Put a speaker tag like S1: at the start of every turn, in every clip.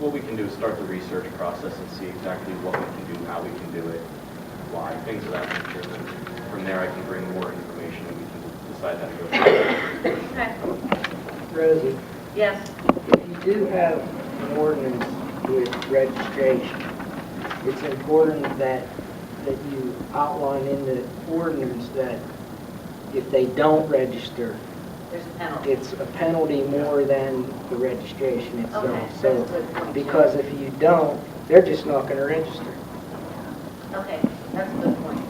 S1: What we can do is start the research process and see exactly what we can do, how we can do it, why, things of that nature. And then From there, I can bring more information and we can decide how to go. forward.
S2: Okay.
S3: Rosie,
S2: Yes.
S3: if you do have an ordinance with registration, it's important that, that you outline in the ordinance that if they don't register,
S2: There's a penalty.
S3: it's a penalty more than the registration
S2: Okay,
S3: itself.
S2: that's a good point.
S3: So, because if you don't, they're just not gonna register.
S2: Okay, that's a good point.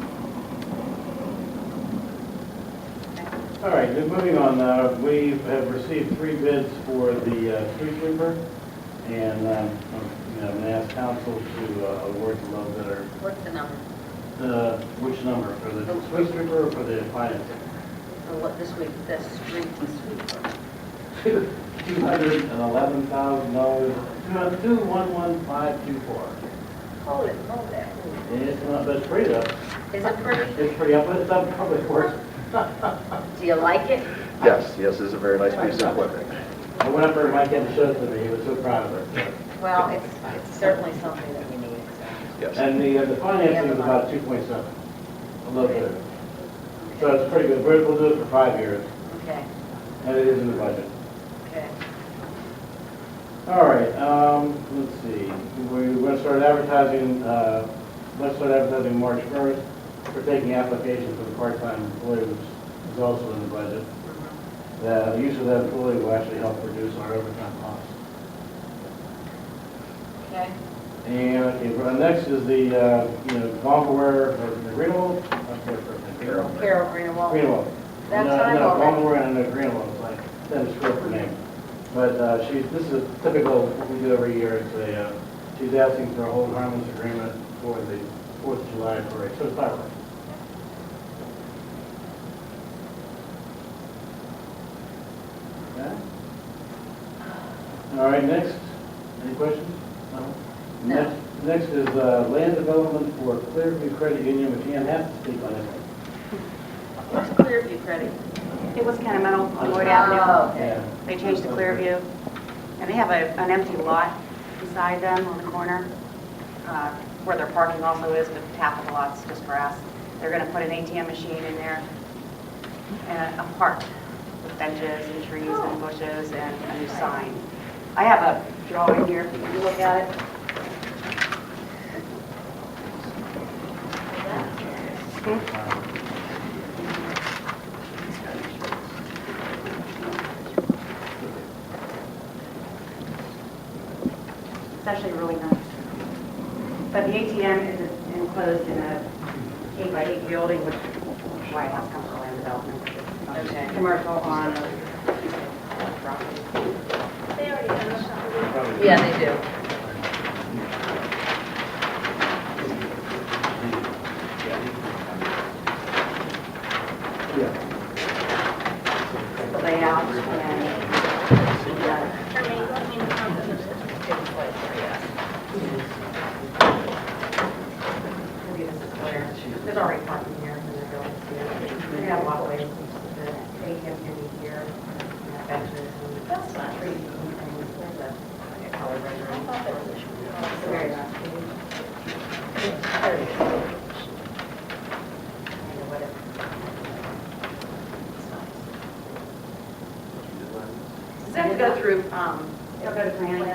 S4: All right, then moving on, uh, we have received three bids for the uh, street sweeper, and um, you know, I'm going to ask council to uh, award the low bidder,
S2: What's the number?
S4: the, which number, for the street sweeper or for the financing?
S2: For what this week, the street sweeper?
S4: Two hundred and eleven thousand dollars, two one one five two four.
S2: Hold it, hold that.
S4: And it's not, but it's pretty up,
S2: Is it pretty?
S4: it's pretty up, but it's up public works.
S2: Do you like it?
S5: Yes, yes, this is a very nice piece of equipment.
S4: I went up there, Mike had to show it to me, he was so proud of it.
S2: Well, it's, it's certainly something that we need, so.
S5: Yes.
S4: And the, uh, the financing is about two point seven, a little bit. So it's pretty good, We're- we'll do it for five years,
S2: Okay,
S4: and it is in the budget.
S2: okay.
S4: All right, um, let's see, we're gonna start advertising, uh, let's start advertising March first. We're taking applications for the part-time employee, which is also in the budget. The use of that employee will actually help reduce our overtime costs.
S2: Okay,
S4: And, okay, well, next is the, uh, you know, Bonware, or the Renal, I'm sorry, for-
S5: Carol.
S2: Carol Greenwald.
S4: Greenwell.
S2: That's
S4: No,
S2: what I thought.
S4: No, Baltimore and uh, Greenwell, it's like, that is her name. But uh, she's, this is typical, what we do every year, it's a, uh, she's asking for a hold harmless agreement for the Fourth of July parade, so it's fireworks. Okay. All right, next, any questions? No.
S2: No.
S4: Next- Next is uh, land development for Clearview Credit Union, which Ann has to speak on this one.
S2: What's Clearview Credit?
S6: It was kind of metal on Lloyd Avenue.
S2: Oh, okay.
S4: Yeah.
S6: They changed to Clearview, and they have a, an empty lot beside them on the corner, uh, where their parking also is, but half of the lot's just grass. They're gonna put an ATM machine in there, and a park with benches and trees and bushes and a new sign. I have a drawing here, if you can look at it. It's actually really nice. But the ATM is enclosed in a eight by eight building, which White House comes from land development.
S2: Okay.
S6: Commercial on property.
S2: Yeah, they do.
S4: Yeah.
S6: The layout and, uh, maybe this is where, there's already parking here in the building. We're gonna have a lot of ways to the ATM can be here, and benches and.
S2: That's not true.
S6: trees and There's a, like a color rendering. It's very nice. And what it- it's nice. Does that have to go through, um, it'll go to planning? And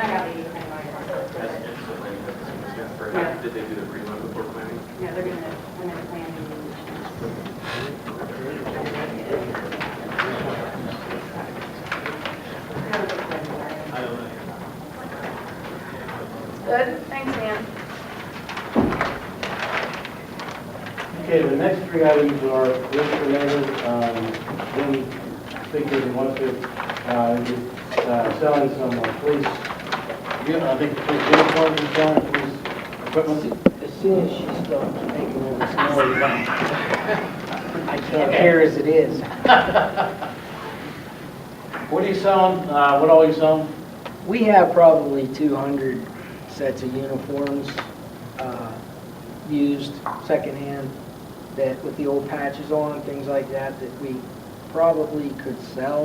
S6: I got the,
S1: uh, Did they do the pre-run before planning?
S6: yeah, they're gonna, they're gonna plan.
S2: Good, thanks, Ann.
S4: Okay, the next three items are list related, um, then speakers who want to, uh, is, uh, selling some uh, police, you know, I think police uniforms and selling police equipment.
S3: As soon as she starts making all this noise, I can't hear as it is.
S4: What are you selling, uh, what all you selling?
S3: We have probably 200 sets of uniforms, uh, used secondhand, that with the old patches on, things like that, that we probably could sell.